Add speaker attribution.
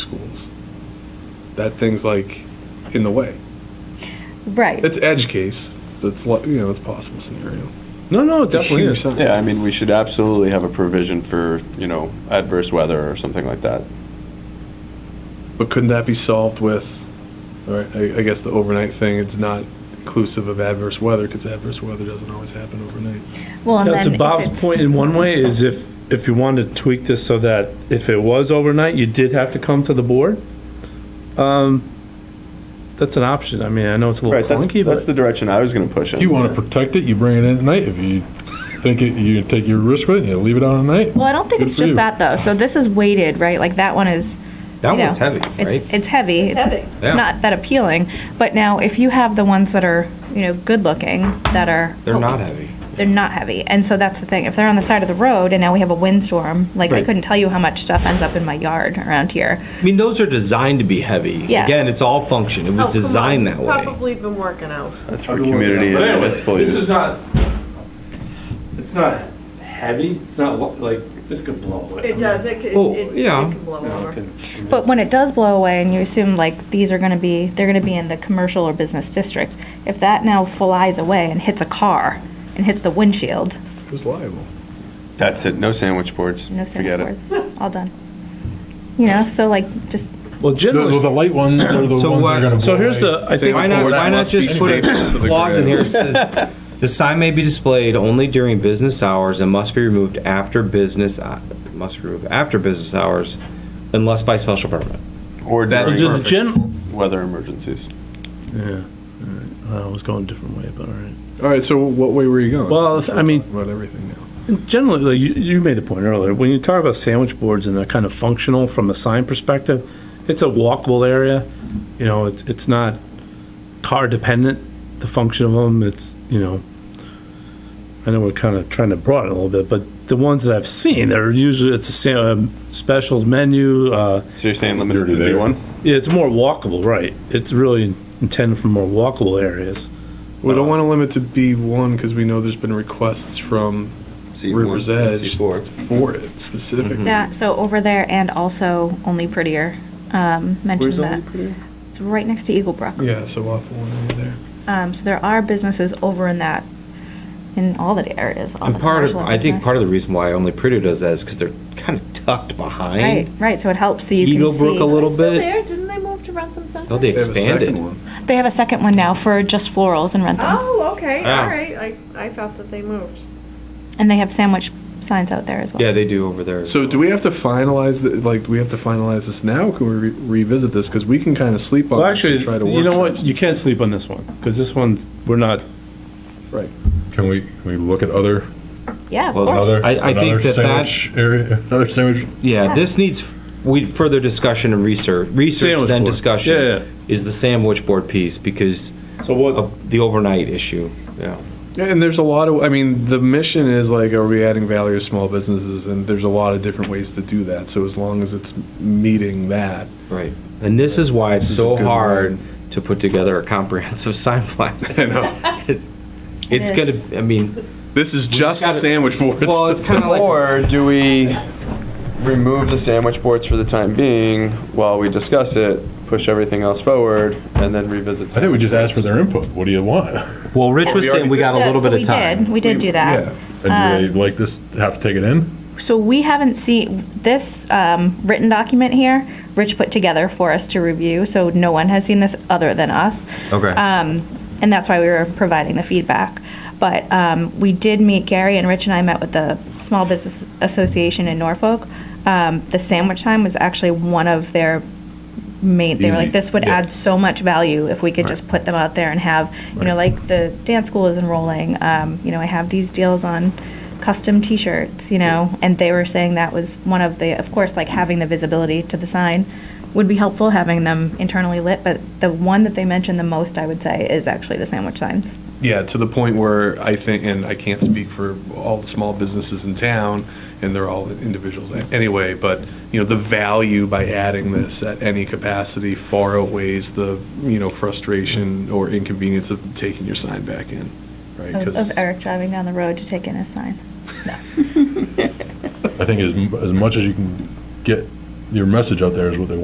Speaker 1: that thing's like in the way.
Speaker 2: Right.
Speaker 1: It's edge case. It's like you know, it's a possible scenario. No, no, it
Speaker 3: It's a
Speaker 1: definitely
Speaker 3: huge
Speaker 1: is.
Speaker 3: sign.
Speaker 4: Yeah, I mean, we should absolutely have a provision for, you know, adverse weather or something like that.
Speaker 1: But couldn't that be solved with, all right, I, I guess the overnight thing, it's not inclusive of adverse weather, because adverse weather doesn't always happen overnight.
Speaker 2: Well, and
Speaker 3: Yeah,
Speaker 2: then
Speaker 3: to
Speaker 2: if
Speaker 3: Bob's
Speaker 2: it's-
Speaker 3: point, in one way, is if, if you wanted to tweak this so that if it was overnight, you did have to come to the board, um, that's an option. I mean, I know it's a
Speaker 4: Right,
Speaker 3: little
Speaker 4: that's,
Speaker 3: clunky,
Speaker 4: that's
Speaker 3: but
Speaker 4: the direction I was gonna push in.
Speaker 5: You want to protect it, you bring it in at night. If you think it, you take your risk with it, you leave it out at night.
Speaker 2: Well, I don't think
Speaker 5: Good
Speaker 2: it's
Speaker 5: for
Speaker 2: just
Speaker 5: you.
Speaker 2: that though. So this is weighted, right? Like that one is.
Speaker 6: That
Speaker 2: you
Speaker 6: one's
Speaker 2: know,
Speaker 6: heavy, right?
Speaker 2: It's, it's heavy. It's,
Speaker 7: heavy.
Speaker 6: Yeah.
Speaker 2: it's not that appealing. But now, if you have the ones that are, you know, good looking, that are.
Speaker 6: They're not heavy.
Speaker 2: They're not heavy. And so that's the thing. If they're on the side of the road and now we have a windstorm, like I
Speaker 6: Right.
Speaker 2: couldn't tell you how much stuff ends up in my yard around here.
Speaker 6: I mean, those are designed to be heavy.
Speaker 2: Yes.
Speaker 6: Again, it's all function. It
Speaker 7: Oh,
Speaker 6: was
Speaker 7: come on.
Speaker 6: designed that way.
Speaker 7: Probably been working out.
Speaker 4: That's for community and
Speaker 3: But anyway,
Speaker 4: municipal
Speaker 3: this is
Speaker 4: use.
Speaker 3: not, it's not heavy, it's not lo- like, this could blow away.
Speaker 7: It does, it can,
Speaker 6: Oh,
Speaker 7: it it
Speaker 6: yeah.
Speaker 7: can blow over.
Speaker 2: But when it does blow away and you assume like these are going to be, they're going to be in the commercial or business district, if that now flies away and hits a car and hits the windshield,
Speaker 1: Who's liable?
Speaker 4: That's it, no sandwich boards,
Speaker 2: no
Speaker 4: forget it.
Speaker 2: sandwich boards, all done. You know, so like just
Speaker 3: Well,
Speaker 5: The,
Speaker 3: generally,
Speaker 5: the light ones are the ones that
Speaker 6: So
Speaker 5: are
Speaker 6: what-
Speaker 5: going to.
Speaker 3: so here's the, I think,
Speaker 6: Uh, Why not,
Speaker 1: Boards
Speaker 6: why not
Speaker 1: must be
Speaker 6: just put a
Speaker 1: stapled to the
Speaker 6: clause in
Speaker 1: ground.
Speaker 6: here that says, "The sign may be displayed only during business hours and must be removed after business, uh, must be removed after business hours unless by special permit."
Speaker 4: Or
Speaker 6: That's
Speaker 4: during
Speaker 6: just-
Speaker 3: gen,
Speaker 4: weather emergencies.
Speaker 3: yeah, all right. I was going a different way, but all right.
Speaker 1: All right, so what way were you going?
Speaker 3: Well,
Speaker 1: Since
Speaker 3: I
Speaker 1: we're
Speaker 3: mean-
Speaker 1: talking About everything now.
Speaker 3: Generally, like, you, you made the point earlier, when you talk about sandwich boards and they're kind of functional from a sign perspective, it's a walkable area, you know, it's, it's not car dependent, the function of them, it's, you know, I know we're kind of trying to broaden it a little bit, but the ones that I've seen, they're usually, it's a sa- um, special menu, uh,
Speaker 4: So you're saying limited to
Speaker 5: Dirty there.
Speaker 4: B1?
Speaker 3: yeah, it's more walkable, right? It's really intended for more walkable areas.
Speaker 1: We don't want to limit to B1, because we know there's been requests from River's Edge for it
Speaker 6: Hmm. Mm-hmm.
Speaker 1: specifically.
Speaker 2: that. So over there and also only prettier. Um, mentioned
Speaker 1: Where's
Speaker 2: that
Speaker 1: Only Prettier?
Speaker 2: it's right next to Eagle Brook.
Speaker 1: Yeah, so off one way there.
Speaker 2: Um, so there are businesses over in that, in all the areas. all
Speaker 6: And
Speaker 2: the
Speaker 6: part of,
Speaker 2: commercial
Speaker 6: I think
Speaker 2: business.
Speaker 6: part of the reason why only Prito does that is because they're kind of tucked
Speaker 2: Right,
Speaker 6: behind
Speaker 2: right. So it helps so you
Speaker 6: Eagle
Speaker 2: can
Speaker 6: Brook
Speaker 2: see.
Speaker 6: a little
Speaker 7: It's still
Speaker 6: bit.
Speaker 7: there, didn't they move to Rantham Center?
Speaker 6: No, they
Speaker 1: They have a
Speaker 6: expanded.
Speaker 1: second one.
Speaker 2: They have a second one now for just florals and rent them.
Speaker 7: Oh, okay,
Speaker 6: Yeah.
Speaker 7: all right, I, I thought that they moved.
Speaker 2: And they have sandwich signs out there as well.
Speaker 6: Yeah, they do over there.
Speaker 1: So do we have to finalize, the- like, do we have to finalize this now? Can we re- revisit this? Because we can kind of sleep on
Speaker 3: Well,
Speaker 1: this
Speaker 3: actually,
Speaker 1: and try to work.
Speaker 3: you know what,
Speaker 1: towards-
Speaker 3: you can't sleep on this one, because this one's, we're not,
Speaker 1: Right.
Speaker 5: Can we, can we look at other,
Speaker 2: Yeah, of
Speaker 6: Well,
Speaker 2: course.
Speaker 5: another,
Speaker 6: I- I think
Speaker 5: another
Speaker 6: that that-
Speaker 5: sandwich area, another sandwich?
Speaker 6: Yeah, this needs f- we further discussion and research, research
Speaker 3: Sandwich
Speaker 6: then
Speaker 3: board.
Speaker 6: discussion.
Speaker 3: Yeah, yeah.
Speaker 6: Is the sandwich board piece because
Speaker 3: so what,
Speaker 6: of the overnight issue. Yeah.
Speaker 1: Yeah, and there's a lot of, I mean, the mission is like, are we adding value to small businesses? And there's a lot of different ways to do that. So as long as it's meeting that,
Speaker 6: Right. And this is why it's
Speaker 1: This is a
Speaker 6: so
Speaker 1: good
Speaker 6: hard to put together a comprehensive sign plan.
Speaker 1: you know,
Speaker 6: it's it's
Speaker 2: is.
Speaker 6: going to, I mean,
Speaker 1: this is just
Speaker 6: gotta-
Speaker 1: sandwich boards.
Speaker 6: well, it's kind of like,
Speaker 4: Or do we remove the sandwich boards for the time being while we discuss it, push everything else forward, and then revisit?
Speaker 5: I think we just asked for
Speaker 4: sandwich
Speaker 5: their input. What do you want?
Speaker 6: well, Rich was
Speaker 1: we
Speaker 6: saying
Speaker 1: already
Speaker 6: we
Speaker 1: did
Speaker 6: got a
Speaker 2: Yeah,
Speaker 6: little
Speaker 2: so
Speaker 6: bit of
Speaker 2: We
Speaker 6: time.
Speaker 2: did, we did do that.
Speaker 1: Yeah.
Speaker 5: And do they like this, have to take it in?
Speaker 2: So we haven't seen, this um, written document here, Rich put together for us to review, so no one has seen this other than us.
Speaker 6: Okay.
Speaker 2: Um, And that's why we were providing the feedback. But um, we did meet, Gary and Rich and I met with the Small Business Association in Norfolk. Um, The sandwich time was actually one of their main, they were like,
Speaker 5: Easy,
Speaker 2: this would
Speaker 5: yeah.
Speaker 2: add so much value if we could just put them out there and have, you know, like the dance school is enrolling, um, you know, I have these deals on custom t-shirts, you know, and they were saying that was one of the, of course, like having the visibility to the sign would be helpful, having them internally lit, but the one that they mentioned the most, I would say, is actually the sandwich signs.
Speaker 1: Yeah, to the point where I think, and I can't speak for all the small businesses in town, and they're all individuals anyway, but, you know, the value by adding this at any capacity far outweighs the, you know, frustration or inconvenience of taking your sign back in, right?
Speaker 2: Of
Speaker 1: 'Cause-
Speaker 2: of Eric driving down the road to take in his sign.
Speaker 5: I think as, m- as much as you can get your message out there is what they want.